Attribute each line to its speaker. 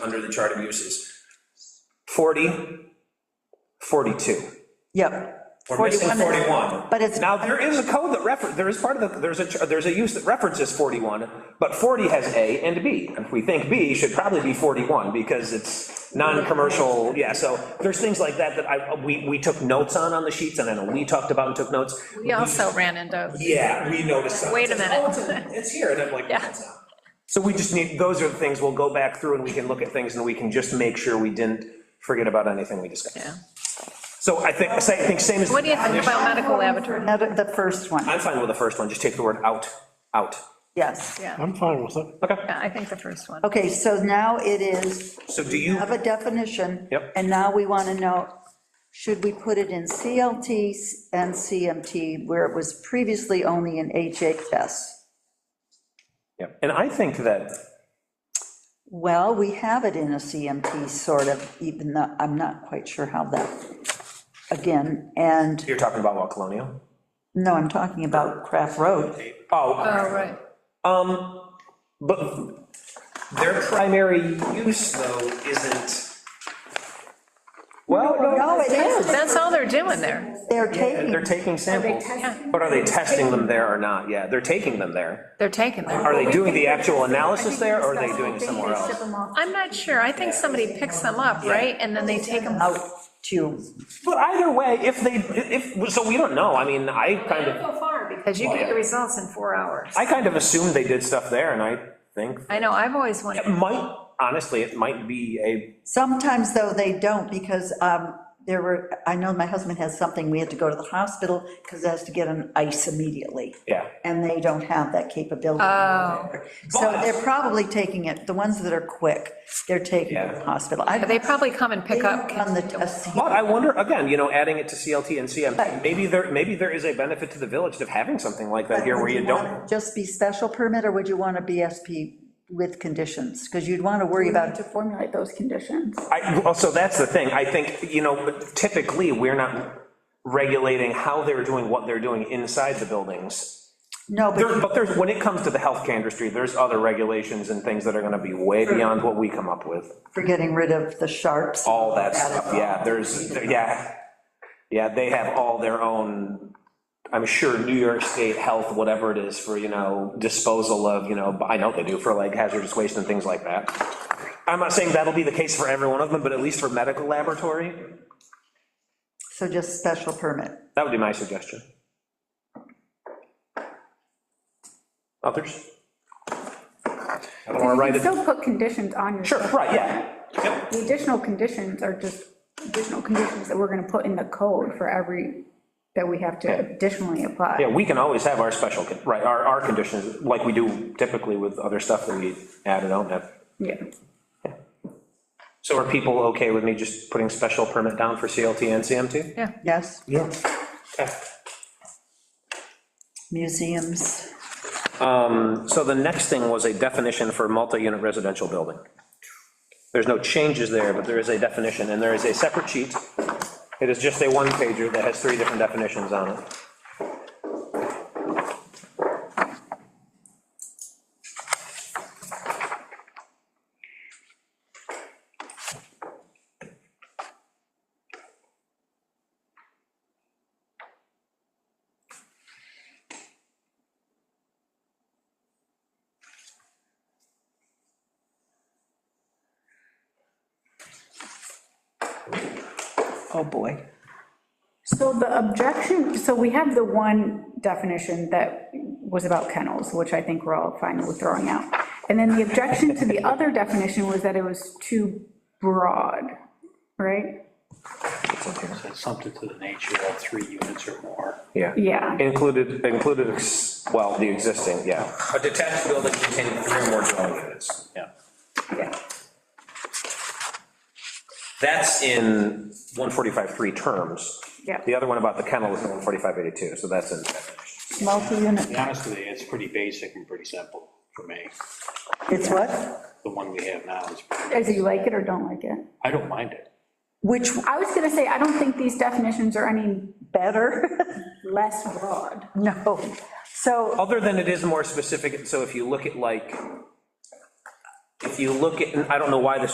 Speaker 1: under the chart of uses. 40, 42.
Speaker 2: Yep.
Speaker 1: We're missing 41.
Speaker 2: But it's,
Speaker 1: Now, there is a code that refer, there is part of the, there's a, ch- there's a use that references 41, but 40 has A and B. And we think B should probably be 41, because it's non-commercial, yeah, so there's things like that that I, we, we took notes on, on the sheets, and I know we talked about and took notes.
Speaker 3: We also ran into,
Speaker 1: Yeah, we noticed something.
Speaker 3: Wait a
Speaker 1: It's like,
Speaker 3: minute.
Speaker 1: "Oh, It's in- it's here, and I'm like, no,
Speaker 3: Yeah.
Speaker 1: it's not. So we just need, those are the things, we'll go back through and we can look at things, and we can just make sure we didn't forget about anything we discussed.
Speaker 3: yeah.
Speaker 1: So I think, I think same as.
Speaker 3: What do you think about medical laboratory?
Speaker 2: another- the first one,
Speaker 1: I'm fine with the first one, just take the word out, out.
Speaker 2: yes.
Speaker 3: Yeah,
Speaker 4: I'm fine with it.
Speaker 3: yeah, I think the first one.
Speaker 2: Okay, so now it is,
Speaker 1: So do you,
Speaker 2: have a definition.
Speaker 1: Yep.
Speaker 2: And now we want to know, should we put it in CLTs and CMT, where it was previously only in HHS?
Speaker 1: Yep. and I think that,
Speaker 2: Well, we have it in a CMT, sort of, even though, I'm not quite sure how that, again, and,
Speaker 1: you're talking about Law Colonial?
Speaker 2: no, I'm talking about Craft Road.
Speaker 1: Oh,
Speaker 3: Oh, right.
Speaker 1: um, but their primary use, though, isn't, well,
Speaker 2: No,
Speaker 1: no,
Speaker 2: Oh, it is,
Speaker 3: That's all they're doing there.
Speaker 2: they're taking,
Speaker 1: they're taking samples.
Speaker 3: testing
Speaker 1: But are they testing them there or not? Yeah, they're taking them there.
Speaker 3: They're taking them.
Speaker 1: Are they doing the actual analysis there, or are they doing it somewhere else?
Speaker 3: I'm not sure. I think somebody picks them up, right? And then they take them.
Speaker 2: out to,
Speaker 1: But either way, if they, if, so we don't know, I mean, I kind of,
Speaker 3: go far, because you get your results in four hours.
Speaker 1: I kind of assumed they did stuff there, and I think,
Speaker 3: I know, I've always wondered.
Speaker 1: it might, honestly, it might be a
Speaker 2: sometimes, though, they don't, because um, there were, I know my husband has something, we had to go to the hospital, because it has to get an ice immediately.
Speaker 1: Yeah.
Speaker 2: And they don't have that capability.
Speaker 3: Oh.
Speaker 2: So they're probably taking it, the ones that are quick, they're taking it to the
Speaker 1: Yeah.
Speaker 2: hospital. I
Speaker 3: They probably come and pick up.
Speaker 2: On the test.
Speaker 1: But I wonder, again, you know, adding it to CLT and CM, maybe there, maybe there is a benefit to the village of having something like that here where you don't.
Speaker 2: Just be special permit, or would you want a BSP with conditions? Because you'd want to worry about,
Speaker 5: to formulate those conditions.
Speaker 1: I, well, so that's the thing. I think, you know, typically, we're not regulating how they're doing what they're doing inside the buildings.
Speaker 2: no,
Speaker 1: There,
Speaker 2: but
Speaker 1: but there's, when it comes to the healthcare industry, there's other regulations and things that are gonna be way beyond what we come up with.
Speaker 2: for getting rid of the sharps.
Speaker 1: All that stuff, yeah, there's, yeah. Yeah, they have all their own I'm sure New York State Health, whatever it is for, you know, disposal of, you know, I know they do for like hazardous waste and things like that. I'm not saying that'll be the case for every one of them, but at least for medical laboratory,
Speaker 2: So just special permit.
Speaker 1: that would be my suggestion. Others? I don't want to write
Speaker 5: You can
Speaker 1: it.
Speaker 5: still put conditions on your.
Speaker 1: Sure, right, yeah. Yep.
Speaker 5: The additional conditions are just additional conditions that we're gonna put in the code for every, that we have to additionally
Speaker 1: Yeah,
Speaker 5: apply.
Speaker 1: we can always have our special, con- right, our, our conditions, like we do typically with other stuff that we add and don't have.
Speaker 5: Yeah.
Speaker 1: So are people okay with me just putting special permit down for CLT and CMT?
Speaker 3: Yeah.
Speaker 2: Yes,
Speaker 4: Yeah.
Speaker 2: museums.
Speaker 1: So the next thing was a definition for multi-unit residential building. There's no changes there, but there is a definition, and there is a separate sheet. It is just a one-pager that has three different definitions on it.
Speaker 2: Oh, boy.
Speaker 5: So the objection, so we have the one definition that was about kennels, which I think we're all fine with throwing out. And then the objection to the other definition was that it was too broad, right?
Speaker 4: Something to the nature of three units or more.
Speaker 1: Yeah.
Speaker 5: Yeah.
Speaker 1: Included, included, ex- well, the existing, yeah.
Speaker 6: A detached building containing three or more dwelling units.
Speaker 4: Yeah.
Speaker 5: Yeah.
Speaker 1: That's in 145.3 terms.
Speaker 5: Yeah.
Speaker 1: The other one about the kennel is in 145.82, so that's in.
Speaker 4: To
Speaker 2: Multi-unit,
Speaker 4: be honest with you, it's pretty basic and pretty simple for me.
Speaker 2: it's what?
Speaker 4: The one we have now is, pretty-
Speaker 5: As you like it or don't like it.
Speaker 4: I don't mind it.
Speaker 2: Which
Speaker 5: I was gonna say, I don't think these definitions are any
Speaker 2: better?
Speaker 5: less broad.
Speaker 2: No. So
Speaker 1: Other than it is more specific, so if you look at like, if you look at, and I don't know why this